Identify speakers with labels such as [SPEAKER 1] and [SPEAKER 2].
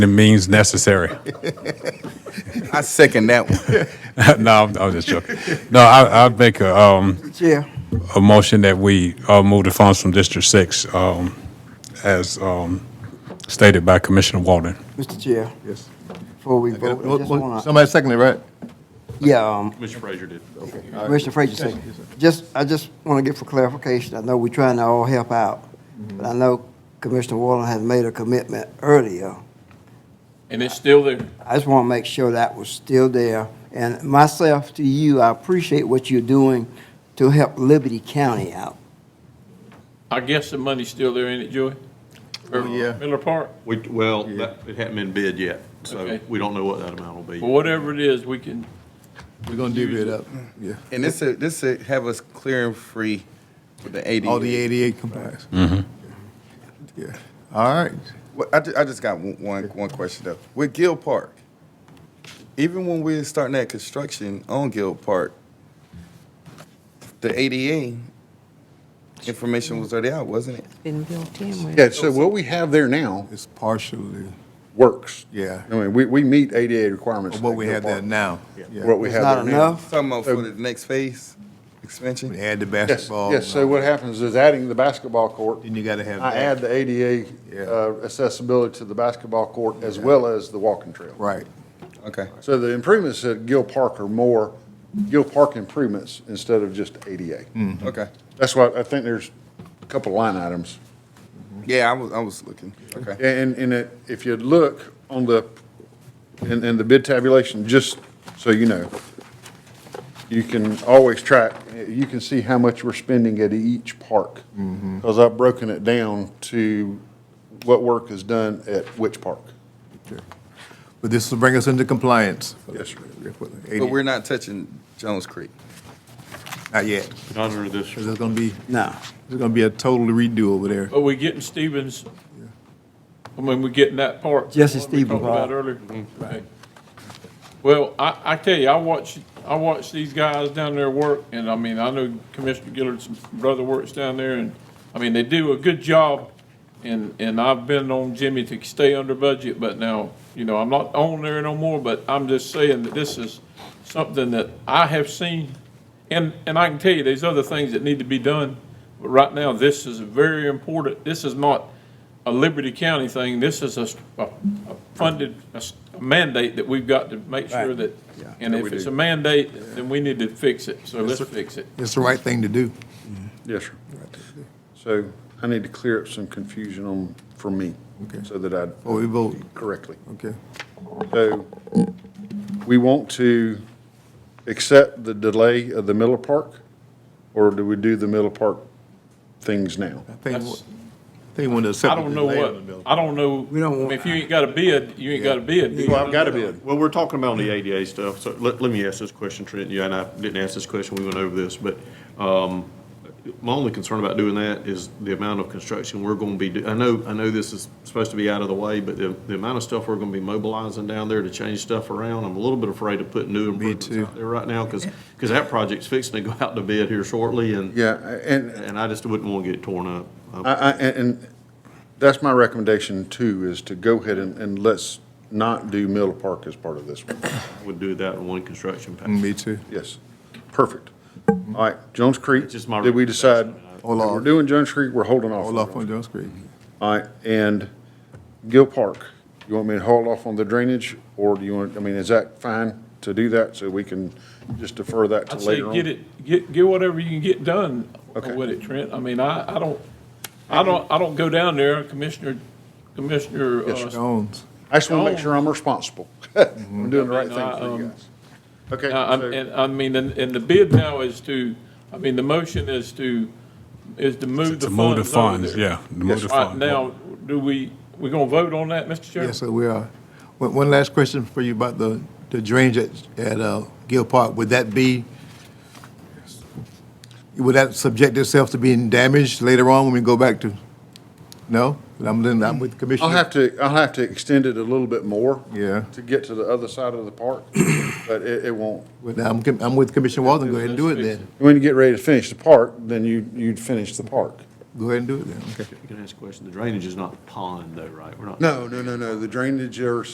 [SPEAKER 1] It means necessary.
[SPEAKER 2] I second that one.
[SPEAKER 1] No, I'm, I'm just joking. No, I, I'd make a, um,
[SPEAKER 3] Yeah.
[SPEAKER 1] a motion that we, uh, move the funds from District Six, um, as, um, stated by Commissioner Walden.
[SPEAKER 3] Mr. Chair,
[SPEAKER 2] Yes.
[SPEAKER 3] before we
[SPEAKER 4] Oh,
[SPEAKER 3] vote, I just want to,
[SPEAKER 2] Somebody seconded, right?
[SPEAKER 3] yeah, um,
[SPEAKER 5] Mr. Frazier did.
[SPEAKER 3] Commissioner Frazier said, just, I just want to get for clarification, I know we're trying to all help out,
[SPEAKER 6] Mm-hmm.
[SPEAKER 3] but I know Commissioner Wallen has made a commitment earlier.
[SPEAKER 5] And it's still there.
[SPEAKER 3] I just want to make sure that was still there. And myself to you, I appreciate what you're doing to help Liberty County out.
[SPEAKER 5] I guess the money's still there, ain't it, Joey? Or
[SPEAKER 2] yeah.
[SPEAKER 5] Miller Park?
[SPEAKER 7] We, well, that, it hadn't been bid yet, so
[SPEAKER 5] Okay.
[SPEAKER 7] we don't know what that amount will be.
[SPEAKER 5] Well, whatever it is, we can,
[SPEAKER 4] We're gonna divvy it up, yeah.
[SPEAKER 2] And this, is- this is have us clear and free with Oh, the AD.
[SPEAKER 4] All the 88 compliance. Yeah, all right.
[SPEAKER 2] Well, I, ju- I just got one, one, one question though. With Gill Park, even when we were starting that construction on Gill Park, the ADA information was already out, wasn't it?
[SPEAKER 8] Been built in with.
[SPEAKER 6] Yeah, so what we have there now
[SPEAKER 4] It's partially,
[SPEAKER 6] works.
[SPEAKER 4] yeah,
[SPEAKER 6] I mean, we, we meet ADA requirements.
[SPEAKER 4] what we have there now. Yeah.
[SPEAKER 6] What we
[SPEAKER 3] It's
[SPEAKER 6] have
[SPEAKER 3] not
[SPEAKER 6] there now.
[SPEAKER 3] enough.
[SPEAKER 2] Talking about for the next phase expansion?
[SPEAKER 4] We add the
[SPEAKER 6] Yes,
[SPEAKER 4] basketball.
[SPEAKER 6] yes, so what happens is adding the basketball court.
[SPEAKER 4] Then you gotta have
[SPEAKER 6] I
[SPEAKER 4] that.
[SPEAKER 6] add the ADA
[SPEAKER 4] Yeah.
[SPEAKER 6] uh, accessibility to the basketball court as well as the walking trail.
[SPEAKER 4] Right,
[SPEAKER 2] Okay.
[SPEAKER 6] So the improvements at Gill Park are more Gill Park improvements instead of just ADA.
[SPEAKER 4] Hmm.
[SPEAKER 2] Okay.
[SPEAKER 6] That's why I think there's a couple line items.
[SPEAKER 2] Yeah, I was, I was looking. Okay.
[SPEAKER 6] And, and it- if you look on the, in, in the bid tabulation, just so you know, you can always track, you can see how much we're spending at each park.
[SPEAKER 4] Mm-hmm.
[SPEAKER 6] Because I've broken it down to what work is done at which park.
[SPEAKER 4] but this will bring us into compliance.
[SPEAKER 6] Yes, sir.
[SPEAKER 2] But we're not touching Jones Creek.
[SPEAKER 4] Not yet,
[SPEAKER 7] Not under this.
[SPEAKER 4] 'cause there's gonna be,
[SPEAKER 3] No.
[SPEAKER 4] there's gonna be a total redo over there.
[SPEAKER 5] are we getting Stevens? I mean, we getting that part.
[SPEAKER 3] Jesse
[SPEAKER 5] what we
[SPEAKER 3] Stevens,
[SPEAKER 5] Talked about
[SPEAKER 3] right.
[SPEAKER 5] earlier. Okay. Well, I, I tell you, I watch, I watch these guys down there work, and I mean, I know Commissioner Gillard's brother works down there, and, I mean, they do a good job. And, and I've been on Jimmy to stay under budget, but now, you know, I'm not on there no more, but I'm just saying that this is something that I have seen. And, and I can tell you, there's other things that need to be done, but right now, this is very important. This is not a Liberty County thing. This is a, s- a- a funded a s- a mandate that we've got to make sure that, and if it's a mandate, then we need to fix it, so let's fix it.
[SPEAKER 4] It's the right thing to do.
[SPEAKER 6] Yes, sir. So I need to clear up some confusion on, for me,
[SPEAKER 4] Okay.
[SPEAKER 6] so that I.
[SPEAKER 4] Before we vote.
[SPEAKER 6] Correctly.
[SPEAKER 4] Okay,
[SPEAKER 6] So we want to accept the delay of the Miller Park, or do we do the Miller Park things now?
[SPEAKER 4] I think,
[SPEAKER 5] That's-
[SPEAKER 4] I think when the.
[SPEAKER 5] I don't know what, I don't know,
[SPEAKER 3] We don't
[SPEAKER 5] I mean,
[SPEAKER 3] want-
[SPEAKER 5] if you ain't got a bid, you ain't got a bid. You
[SPEAKER 6] Well, I've got a
[SPEAKER 5] don't know.
[SPEAKER 6] bid.
[SPEAKER 7] Well, we're talking about the ADA stuff, so let, let me ask this question, Trent, you and I didn't ask this question, we went over this, but, um, my only concern about doing that is the amount of construction we're gonna be, do- I know, I know this is supposed to be out of the way, but the, the amount of stuff we're gonna be mobilizing down there to change stuff around, I'm a little bit afraid of putting new improvements
[SPEAKER 4] too.
[SPEAKER 7] out there right now, cause, 'cause that project's fixing to go out to bid here shortly, and.
[SPEAKER 6] Yeah, and
[SPEAKER 7] And I just wouldn't wanna get it torn up. I-
[SPEAKER 6] I, I, and and that's my recommendation too, is to go ahead and, and let's not do Miller Park as part of this one.
[SPEAKER 7] would do that in one construction package.
[SPEAKER 4] Me too.
[SPEAKER 6] Yes, perfect. All right, Jones Creek,
[SPEAKER 7] It's just my
[SPEAKER 6] did we decide?
[SPEAKER 7] recommendation.
[SPEAKER 4] Hold
[SPEAKER 6] If
[SPEAKER 4] off.
[SPEAKER 6] We're doing Jones Creek, we're holding off.
[SPEAKER 4] Hold off on Jones Creek.
[SPEAKER 6] All right, and Gill Park, you want me to hold off on the drainage, or do you want, I mean, is that fine to do that, so we can just defer that to
[SPEAKER 5] I'd say
[SPEAKER 6] later on?
[SPEAKER 5] get it, get, get whatever you can get done
[SPEAKER 6] Okay.
[SPEAKER 5] with it, Trent. I mean, I, I don't, I don't, I don't go down there, Commissioner, Commissioner, uh,
[SPEAKER 4] Jones.
[SPEAKER 6] I just want to make sure I'm responsible. I'm doing the right
[SPEAKER 5] I mean, I,
[SPEAKER 6] thing for you
[SPEAKER 5] um,
[SPEAKER 6] guys. Okay,
[SPEAKER 5] Now, I'm-
[SPEAKER 6] so-
[SPEAKER 5] And, I mean, and, and the bid now is to, I mean, the motion is to, is to move the
[SPEAKER 1] To move the
[SPEAKER 5] funds over
[SPEAKER 1] funds,
[SPEAKER 5] there.
[SPEAKER 1] yeah, to move the
[SPEAKER 5] All right,
[SPEAKER 1] funds.
[SPEAKER 5] now, do we, we gonna vote on that, Mr. Chairman?
[SPEAKER 4] Yes, sir, we are. One, one last question for you about the, the drainage at, at, uh, Gill Park. Would that be, would that subject itself to being damaged later on when we go back to? No? But I'm, then I'm with Commissioner.
[SPEAKER 6] I'll have to, I'll have to extend it a little bit more.
[SPEAKER 4] Yeah.
[SPEAKER 6] To get to the other side of the park, but it, it won't.
[SPEAKER 4] But I'm, com- I'm with Commissioner Walden. Go ahead and do it
[SPEAKER 5] Let's fix
[SPEAKER 4] then.
[SPEAKER 6] When you get ready to finish the park, then you, you'd finish the park.
[SPEAKER 4] Go ahead and do it then, okay.
[SPEAKER 7] You can ask a question. The drainage is not pond though, right? We're not.
[SPEAKER 6] No, no, no, no, the drainage or